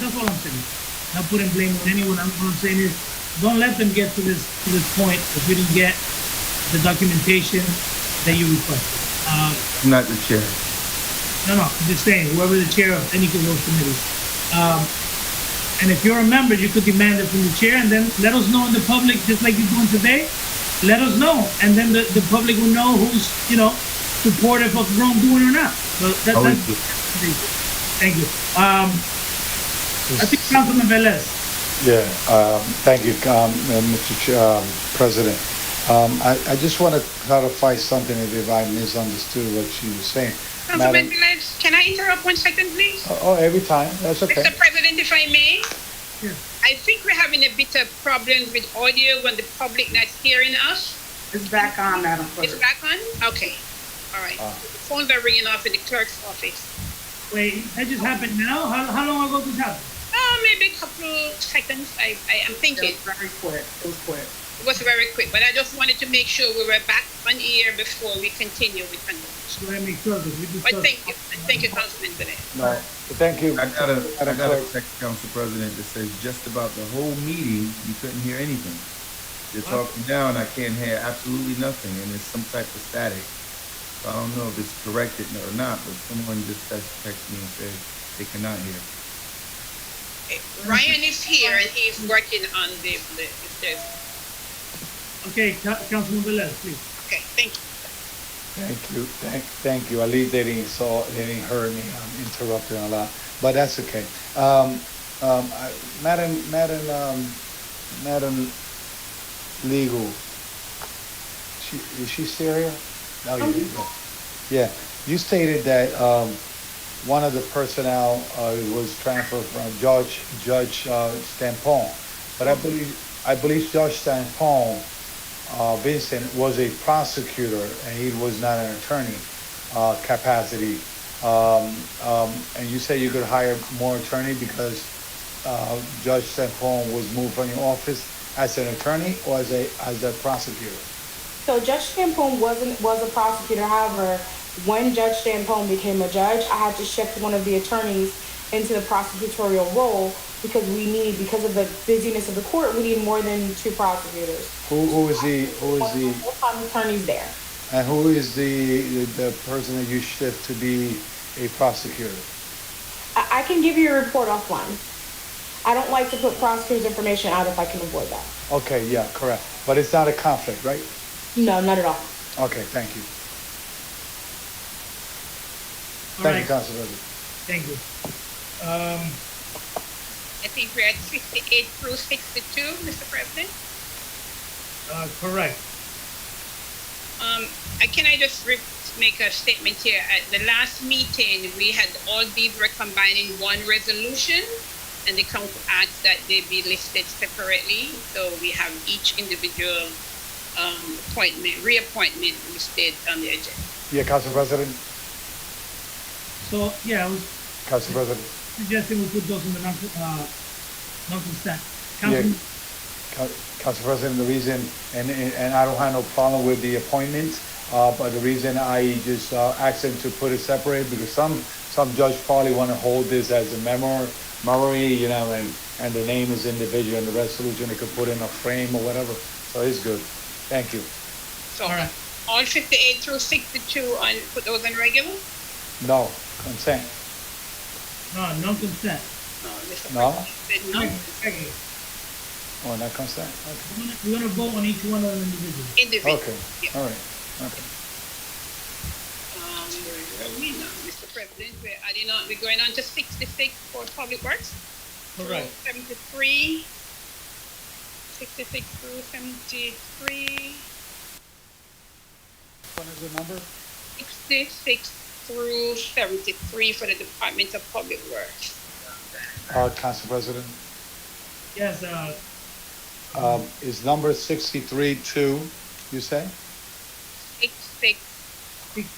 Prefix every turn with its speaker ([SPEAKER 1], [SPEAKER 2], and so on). [SPEAKER 1] That's all I'm saying. Not putting blame on anyone. I'm, what I'm saying is, don't let them get to this, to this point if you didn't get the documentation that you requested. Uh,
[SPEAKER 2] not the chair.
[SPEAKER 1] no, no, I'm just saying, whoever the chair of any of those committees. Um, and if you're a member, you could demand it from the chair and then let us know in the public, just like you're doing today. Let us know, and then the, the public will know who's, you know, supportive of wrongdoing or not. So that,
[SPEAKER 2] Always
[SPEAKER 1] that's,
[SPEAKER 2] good.
[SPEAKER 1] thank you. Um, I think Councilman Velez.
[SPEAKER 3] Yeah, um, thank you, um, uh, Mr. Ch- um, President. Um, I I just want to clarify something if I misunderstood what you were saying.
[SPEAKER 4] Councilman
[SPEAKER 3] Madam-
[SPEAKER 4] Velez, Um, can I interrupt one second, please?
[SPEAKER 3] Oh, Oh, every time, that's okay.
[SPEAKER 4] Mr. President, if I may?
[SPEAKER 1] Yes.
[SPEAKER 4] I think we're having a bit of problems with audio when the public not hearing us.
[SPEAKER 5] It's back on, Madam
[SPEAKER 4] It's
[SPEAKER 5] Clerk.
[SPEAKER 4] back on? Okay, all right.
[SPEAKER 3] Ah.
[SPEAKER 4] Phones are ringing off in the clerk's office.
[SPEAKER 1] Wait, that just happened now? How, how long ago did this happen?
[SPEAKER 4] Oh, maybe a couple seconds, I, I am
[SPEAKER 5] It was
[SPEAKER 4] thinking.
[SPEAKER 5] very quick. It was quick.
[SPEAKER 4] It was very quick, but I just wanted to make sure we were back on air before we continue with conversation.
[SPEAKER 1] Just wanna make sure that we discussed.
[SPEAKER 4] But thank you, thank you, Councilman Velez.
[SPEAKER 3] No, Thank you.
[SPEAKER 2] I got a, I
[SPEAKER 3] Madam
[SPEAKER 2] got a
[SPEAKER 3] Clerk.
[SPEAKER 2] text council president that says just about the whole meeting, you couldn't hear anything. They're
[SPEAKER 1] Wow.
[SPEAKER 2] talking down, I can't hear absolutely nothing, and there's some type of static. So I don't know if it's corrected or not, but someone just text- texted me and said they cannot hear.
[SPEAKER 4] Ryan is here and he's working on the, the, the-
[SPEAKER 1] Okay, Ca- Councilman Velez, please.
[SPEAKER 4] okay, thank you.
[SPEAKER 3] Thank you, thank, thank you. At least they didn't saw, they didn't hear me um, interrupting a lot, but that's okay. Um, um, I, Madam, Madam, um, Madam, legal. She is she Syria? No, you didn't. go. Yeah, you stated that um, one of the personnel uh, was transferred from Judge Judge uh, Stampone, but I believe I believe Judge Stampone uh, Vincent was a prosecutor and he was not an attorney uh, capacity. Um, um, and you say you could hire more attorney because uh, Judge Sempone was moved from your office as an attorney or as a as a prosecutor.
[SPEAKER 6] So Judge Stampone wasn't was a prosecutor. However, when Judge Stampone became a judge, I had to shift one of the attorneys into the prosecutorial role because we need because of the busyness of the court, we need more than two prosecutors.
[SPEAKER 3] Who who is the who is
[SPEAKER 6] One
[SPEAKER 3] the
[SPEAKER 6] full-time attorneys there.
[SPEAKER 3] and who is the the person that you shift to be a prosecutor?
[SPEAKER 6] I, I can give you a report offline. I don't like to put prosecutors' information out if I can avoid that.
[SPEAKER 3] Okay, yeah, correct. But it's not a conflict, right?
[SPEAKER 6] No, not at all.
[SPEAKER 3] Okay, thank you.
[SPEAKER 1] All
[SPEAKER 3] thank
[SPEAKER 1] right,
[SPEAKER 3] you, Council President.
[SPEAKER 1] thank you. Um,
[SPEAKER 4] I think we're at sixty-eight through sixty-two, Mr. President.
[SPEAKER 1] uh, correct.
[SPEAKER 4] Um, I- can I just re- make a statement here? At the last meeting, we had all these were combined in one resolution, and the council asked that they be listed separately, so we have each individual, um, appointment, reappointment listed on the agenda.
[SPEAKER 3] Yeah, Council President.
[SPEAKER 1] So, yeah, I was
[SPEAKER 3] Council President.
[SPEAKER 1] suggesting we put those in the non, uh, non-consent.
[SPEAKER 3] Yeah.
[SPEAKER 1] Councilman,
[SPEAKER 3] Coun- Council President, the reason, and, and and I don't have no problem with the appointments, uh, but the reason I just, uh, asked them to put it separate, because some, some judge probably want to hold this as a memor, memory, you know, and, and the name is individual and the resolution, they could put in a frame or whatever, so it's good. Thank you.
[SPEAKER 4] So,
[SPEAKER 1] All right.
[SPEAKER 4] all fifty-eight through sixty-two on, put those on regular?
[SPEAKER 3] No, consent,
[SPEAKER 1] no, non-consent.
[SPEAKER 4] No, Mr.
[SPEAKER 3] No.
[SPEAKER 4] President said
[SPEAKER 1] Okay,
[SPEAKER 4] no,
[SPEAKER 1] okay.
[SPEAKER 3] oh, not consent,
[SPEAKER 1] We're gonna, we're gonna vote on each one of them individually.
[SPEAKER 4] individual.
[SPEAKER 3] okay,
[SPEAKER 4] Yeah.
[SPEAKER 3] all right, okay.
[SPEAKER 4] Um, we know, Mr. President, we're adding on, we're going on to sixty-six for public works.
[SPEAKER 1] Correct.
[SPEAKER 4] Through Seventy-three. Sixty-six through seventy-three,
[SPEAKER 3] What is the number?
[SPEAKER 4] sixty-six through seventy-three for the Department of Public Works.
[SPEAKER 3] Uh, Council President,
[SPEAKER 1] Yes, uh,
[SPEAKER 3] um, is number sixty-three two, you say?
[SPEAKER 4] Six, six,